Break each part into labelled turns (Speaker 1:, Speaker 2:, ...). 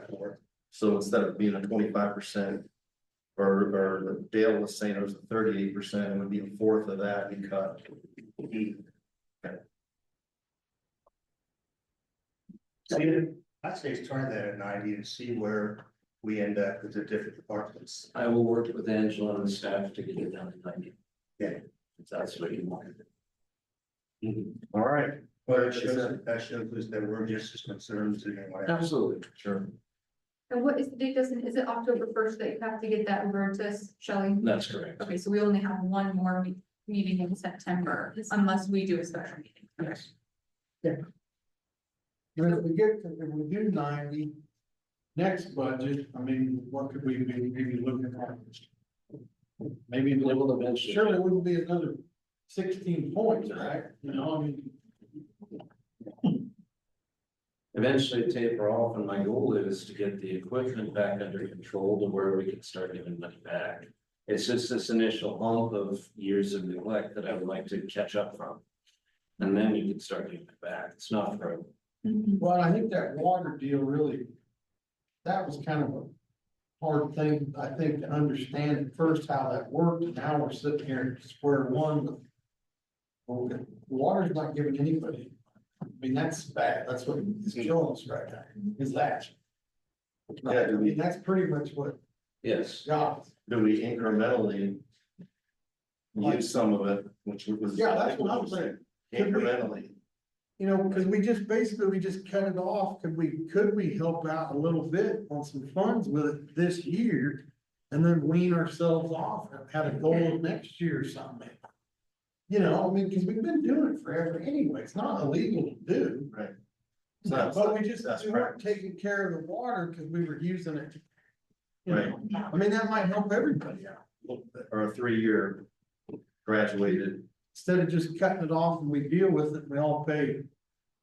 Speaker 1: that for. So instead of being a twenty-five percent. Or, or Dale was saying it was a thirty-eight percent, it would be a fourth of that he cut.
Speaker 2: See, I'd say try that at ninety and see where we end up with the different departments.
Speaker 3: I will work with Angela and the staff to get it down to ninety.
Speaker 2: Yeah.
Speaker 3: If that's what you want.
Speaker 2: All right. But it shows,
Speaker 1: Exactly.
Speaker 2: that shows us that we're just as concerned as anyone else.
Speaker 3: Absolutely.
Speaker 1: Sure.
Speaker 4: And what is the date, Justin? Is it October first that you have to get that over to us, Shelley?
Speaker 3: That's correct.
Speaker 4: Okay, so we only have one more me- meeting in September unless we do a special meeting.
Speaker 3: Yes.
Speaker 5: And if we get, to- if we do ninety, next budget, I mean, what could we be maybe looking at? Maybe,
Speaker 3: They will eventually.
Speaker 5: surely it wouldn't be another sixteen points, right? You know, I mean,
Speaker 3: Eventually taper off and my goal is to get the equipment back under control to where we can start giving money back. It's just this initial hump of years of neglect that I would like to catch up from. And then you can start giving it back. It's not for
Speaker 5: well, I think that water deal really, that was kind of a hard thing, I think, to understand at first how that worked, and now we're sitting here at square one with okay, water's not giving anybody, I mean, that's bad, that's what is killing us right now, is that.
Speaker 1: Yeah,
Speaker 5: I
Speaker 1: do
Speaker 5: mean,
Speaker 1: we,
Speaker 5: that's pretty much what
Speaker 3: Yes,
Speaker 5: job, is.
Speaker 1: do we incrementally? Use some of it, which was.
Speaker 5: yeah, that's what I'm saying,
Speaker 1: Incrementally,
Speaker 5: you know, because we just, basically, we just cut it off, could we, could we help out a little bit on some funds with it this year? And then wean ourselves off and have a goal of next year or something. You know, I mean, because we've been doing it forever anyway, it's not illegal to do.
Speaker 1: Right. It's not-
Speaker 5: But we just,
Speaker 1: that's
Speaker 5: we
Speaker 1: correct.
Speaker 5: weren't taking care of the water because we were using it. to- You know, I mean, that might help everybody out a little bit.
Speaker 1: or a three-year graduated,
Speaker 5: instead of just cutting it off and we deal with it, we all pay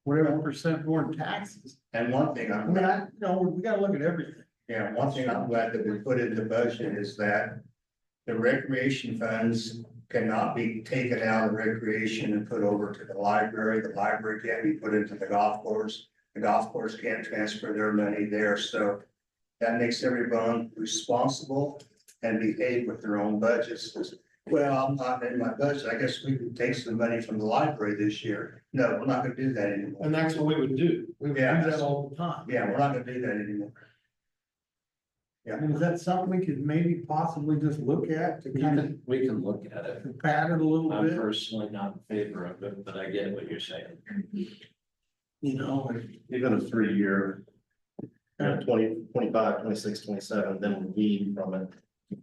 Speaker 5: whatever percent more in taxes.
Speaker 2: And one thing
Speaker 5: I
Speaker 2: I'm,
Speaker 5: mean,
Speaker 2: glad-
Speaker 5: I, you know, we gotta look at everything.
Speaker 2: yeah, one thing I'm glad that we put in the budget is that. The recreation funds cannot be taken out of recreation and put over to the library. The library can't be put into the golf course. The golf course can't transfer their money there, so. That makes everyone responsible and behave with their own budgets. Well, I'm not in my budget. I guess we could take some money from the library this year. No, we're not gonna do that anymore.
Speaker 5: And that's what we would do. We would do
Speaker 2: Yeah.
Speaker 5: that all the time.
Speaker 2: Yeah, we're not gonna do that anymore.
Speaker 5: I mean, is that something we could maybe possibly just look at to
Speaker 3: we
Speaker 5: kind of
Speaker 3: can, we can look at it.
Speaker 5: combat it a little
Speaker 3: I'm
Speaker 5: bit,
Speaker 3: personally not in favor of it, but I get what you're saying.
Speaker 5: you know, and
Speaker 1: even a three-year. You know, 20, 25, 26, 27, then we wean from it,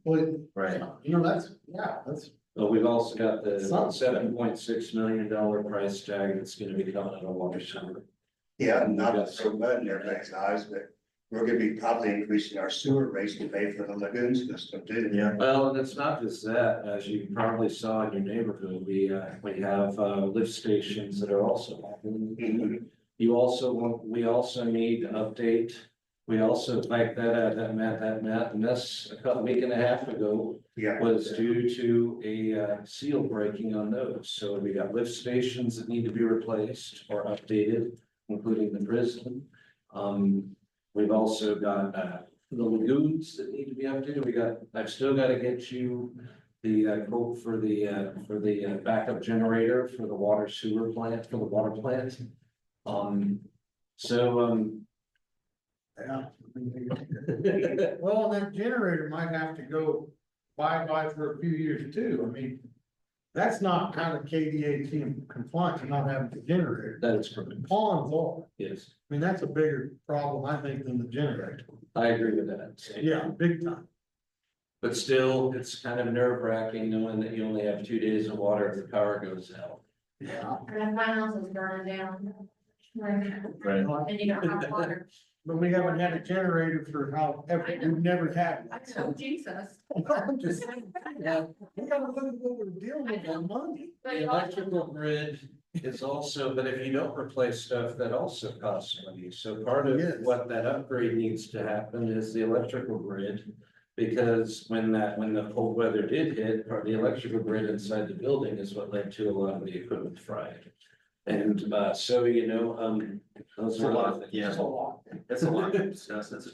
Speaker 5: well,
Speaker 1: right?
Speaker 5: you know, that's, yeah, that's,
Speaker 3: But we've also got the
Speaker 5: Some-
Speaker 3: seven point six million dollar price tag that's gonna be coming out of water sewer.
Speaker 2: Yeah, not so much in everybody's eyes, but we're gonna be probably increasing our sewer rates to pay for the lagoon system too.
Speaker 1: Yeah,
Speaker 3: Well, and it's not just that, as you probably saw in your neighborhood, we, uh, we have, uh, lift stations that are also.
Speaker 2: Mm-hmm.
Speaker 3: happening. You also, want- we also need to update, we also, like that, uh, that Matt, that Matt, mess a couple, week and a half ago.
Speaker 2: Yeah.
Speaker 3: was due to a uh, seal breaking on those. So we got lift stations that need to be replaced or updated, including the prison. Um, we've also got uh, the lagoons that need to be updated. We got, I've still got to get you the uh, quote for the, uh, for the uh, backup generator for the water sewer plant, for the water plant. Um, so, um,
Speaker 5: yeah. Well, that generator might have to go bye-bye for a few years too, I mean, that's not kind of KDA team compliant, to not having the generator.
Speaker 3: that is correct.
Speaker 5: Ponds are,
Speaker 3: Yes,
Speaker 5: I mean, that's a bigger problem, I think, than the generator.
Speaker 3: I agree with that.
Speaker 5: Yeah, big time.
Speaker 3: But still, it's kind of nerve wracking knowing that you only have two days of water if the power goes out.
Speaker 5: Yeah.
Speaker 6: And my house is burning down. And
Speaker 1: right.
Speaker 6: you don't have water.
Speaker 5: But we haven't had a generator for how, ever, we've never had
Speaker 4: I
Speaker 5: one.
Speaker 4: know,
Speaker 5: so-
Speaker 4: Oh, Jesus.
Speaker 5: I'm just saying,
Speaker 6: Yeah.
Speaker 5: We gotta look at what we're dealing with on money.
Speaker 3: The electrical grid is also, but if you don't replace stuff, that also costs money. So part of
Speaker 5: Yes.
Speaker 3: what that upgrade needs to happen is the electrical grid. Because when that, when the cold weather did hit, part of the electrical grid inside the building is what led to a lot of the equipment fried. And uh, so, you know, um, those are a lot of things.
Speaker 1: Yeah.
Speaker 5: It's a lot.
Speaker 1: That's a lot, that's, that's a